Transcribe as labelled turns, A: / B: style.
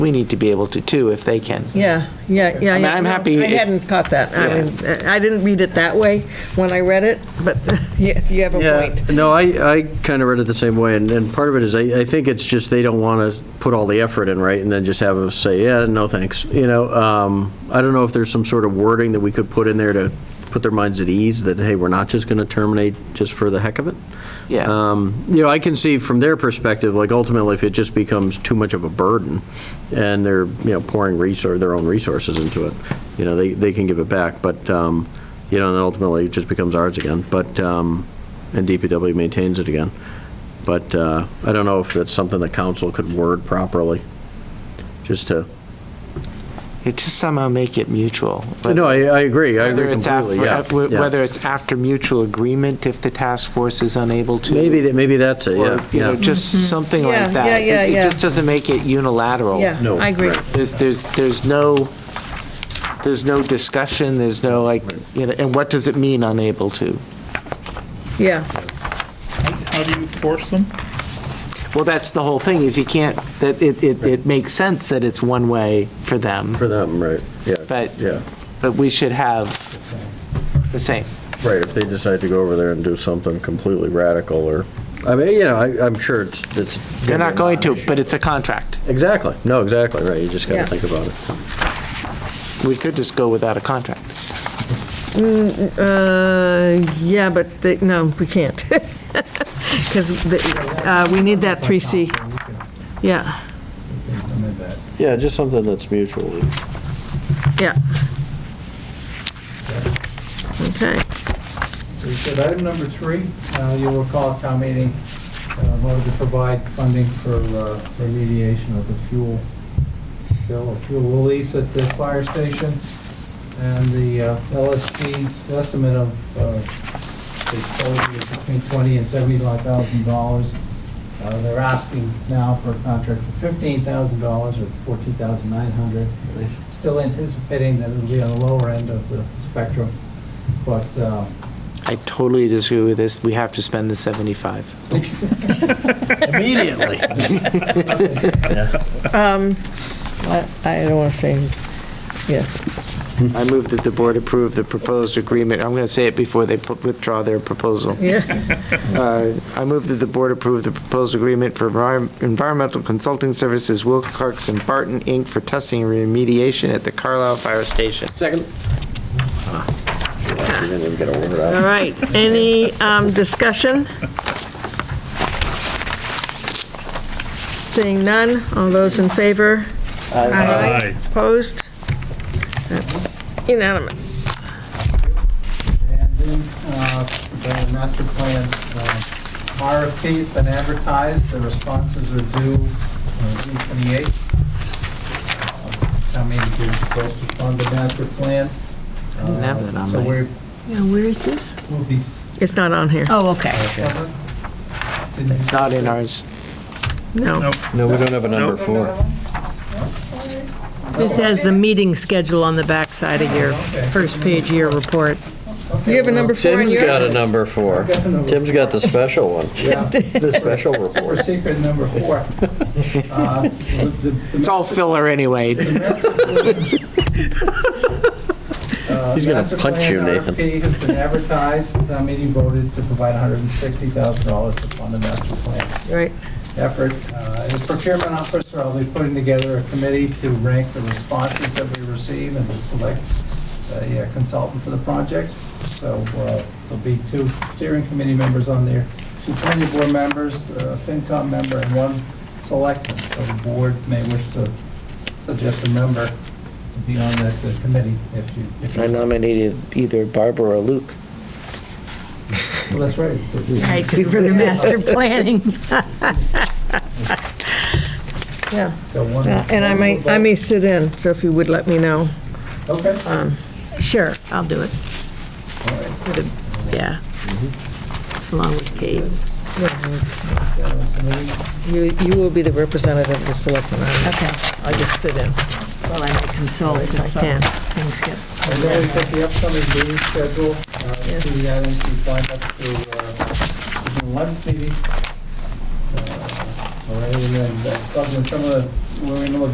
A: we need to be able to too, if they can.
B: Yeah, yeah, yeah.
A: I mean,
B: yeah,
A: I'm
B: no,
A: happy
B: I
A: if-
B: hadn't caught that. I
A: Yeah.
B: mean, I didn't read it that way when I read it, but you you have a
C: Yeah,
B: point.
C: no, I, I kind of read it the same way, and, and part of it is, I, I think it's just they don't want to put all the effort in, right, and then just have us say, yeah, no thanks, you know, um, I don't know if there's some sort of wording that we could put in there to put their minds at ease, that, hey, we're not just going to terminate just for the heck of it.
A: Yeah.
C: Um, You know, I can see from their perspective, like ultimately, if it just becomes too much of a burden, and they're, you know, pouring resource, their own resources into it, you know, they, they can give it back, but, um, you know, and then ultimately, it just becomes ours again, but, um, and DPW maintains it again. But uh, I don't know if that's something that council could word properly, just to,
A: It just somehow make it mutual.
C: no, I, I agree, I
A: Whether
C: agree
A: it's af-
C: completely, yeah.
A: af- wh-
C: yeah.
A: Whether it's after mutual agreement, if the task force is unable to.
C: Maybe, that- maybe that's it,
A: Or,
C: yeah,
A: you know,
C: yeah.
A: just something
B: Mm-hmm. Yeah,
A: like that.
B: yeah, yeah,
A: It- It
B: yeah.
A: just doesn't make it unilateral.
B: Yeah,
C: No,
B: I agree.
C: right.
A: There's, there's, there's no, there's no discussion, there's no like, you know, and what does it mean unable to?
B: Yeah,
D: How do you force them?
A: Well, that's the whole thing, is you can't, that it, it, it makes sense that it's one way for them,
C: For them, right, yeah.
A: But-
C: Yeah.
A: but we should have the same.
C: Right, if they decide to go over there and do something completely radical or, I mean, you know, I, I'm sure it's, it's.
A: They're not going to, but it's a contract.
C: Exactly, no, exactly, right, you just
B: Yeah.
C: gotta think about it.
A: We could just go without a contract.
B: uh, yeah, but they, no, we can't. Because we need that 3C. Yeah,
C: Yeah, just something that's mutually.
B: yeah. Okay,
E: So you said item number three, uh, you'll recall at town meeting uh, voted to provide funding for uh, remediation of the fuel spill, or fuel release at the fire station, and the uh, LSP's estimate of uh, the total is between twenty and seventy-five thousand dollars. Uh, They're asking now for a contract for fifteen thousand dollars or fourteen thousand nine hundred. Still anticipating that it'll be on the lower end of the spectrum, but uh,
A: I totally disagree with this, we have to spend the 75.
C: Immediately.
B: um, I I don't want to say, yeah.
A: I move that the board approve the proposed agreement, I'm going to say it before they pu- withdraw their proposal.
B: yeah,
A: Uh, I move that the board approve the proposed agreement for envi- environmental consulting services Will Wilcox and Barton, Inc. for testing and remediation at the Carlisle Fire Station.
C: Second. Ah, You didn't even get a word out.
B: All right, any um, discussion? Seeing none, all those in favor?
D: Aye.
B: Opposed? That's unanimous.
E: And then, uh, the master plan, uh, RFP has been advertised, the responses are due uh, June twenty-eighth. Town meeting is supposed to fund the master plan.
A: I didn't have that on
E: Uh, So
A: my-
E: we're,
F: Yeah, where is this?
E: we'll be.
B: It's not on here.
F: Oh, okay.
E: It's
A: It's not in ours.
B: No.
D: Nope.
C: No, we don't have a number four.
F: This has the meeting schedule on the backside of your first page of your report.
B: You have a number four in
C: Tim's got a
B: yours?
C: number four.
E: I've got the number
C: Tim's got the special one, the special
E: For
C: report.
E: secret number four. Uh, the- the- the
A: It's all filler anyway.
C: He's gonna punch you, Nathan.
E: uh, Master plan RFP has been advertised, the town meeting voted to provide $160,000 to fund the master plan
B: Right,
E: effort. Uh, As procurement officer, I'll be putting together a committee to rank the responses that we receive and to select a uh, consultant for the project. So uh, there'll be two steering committee members on there, two planning board members, a FinCom member, and one selectman. So the board may wish to suggest a member to be on that uh, committee if you. if you-
A: nominated either Barbara or Luke.
E: Well, that's right.
F: Right, because we're the master planning.
B: yeah.
E: So one.
B: Yeah, And I may, I may sit in, so if you would let me know.
E: Okay.
B: um,
E: All
F: Sure, I'll do it.
E: right.
F: Yeah.
B: Mm-hmm.
F: Along with Gabe.
B: You, you will be the representative of the selectmen. I'll-
F: Okay.
B: I'll just sit in.
F: Well, I may consult if uh,
B: Can.
F: things get,
E: And then we've got the upcoming meeting schedule, uh, the items we find up to, uh, June 11th meeting. Uh, All right, and then, uh, other than some of the, we're in a little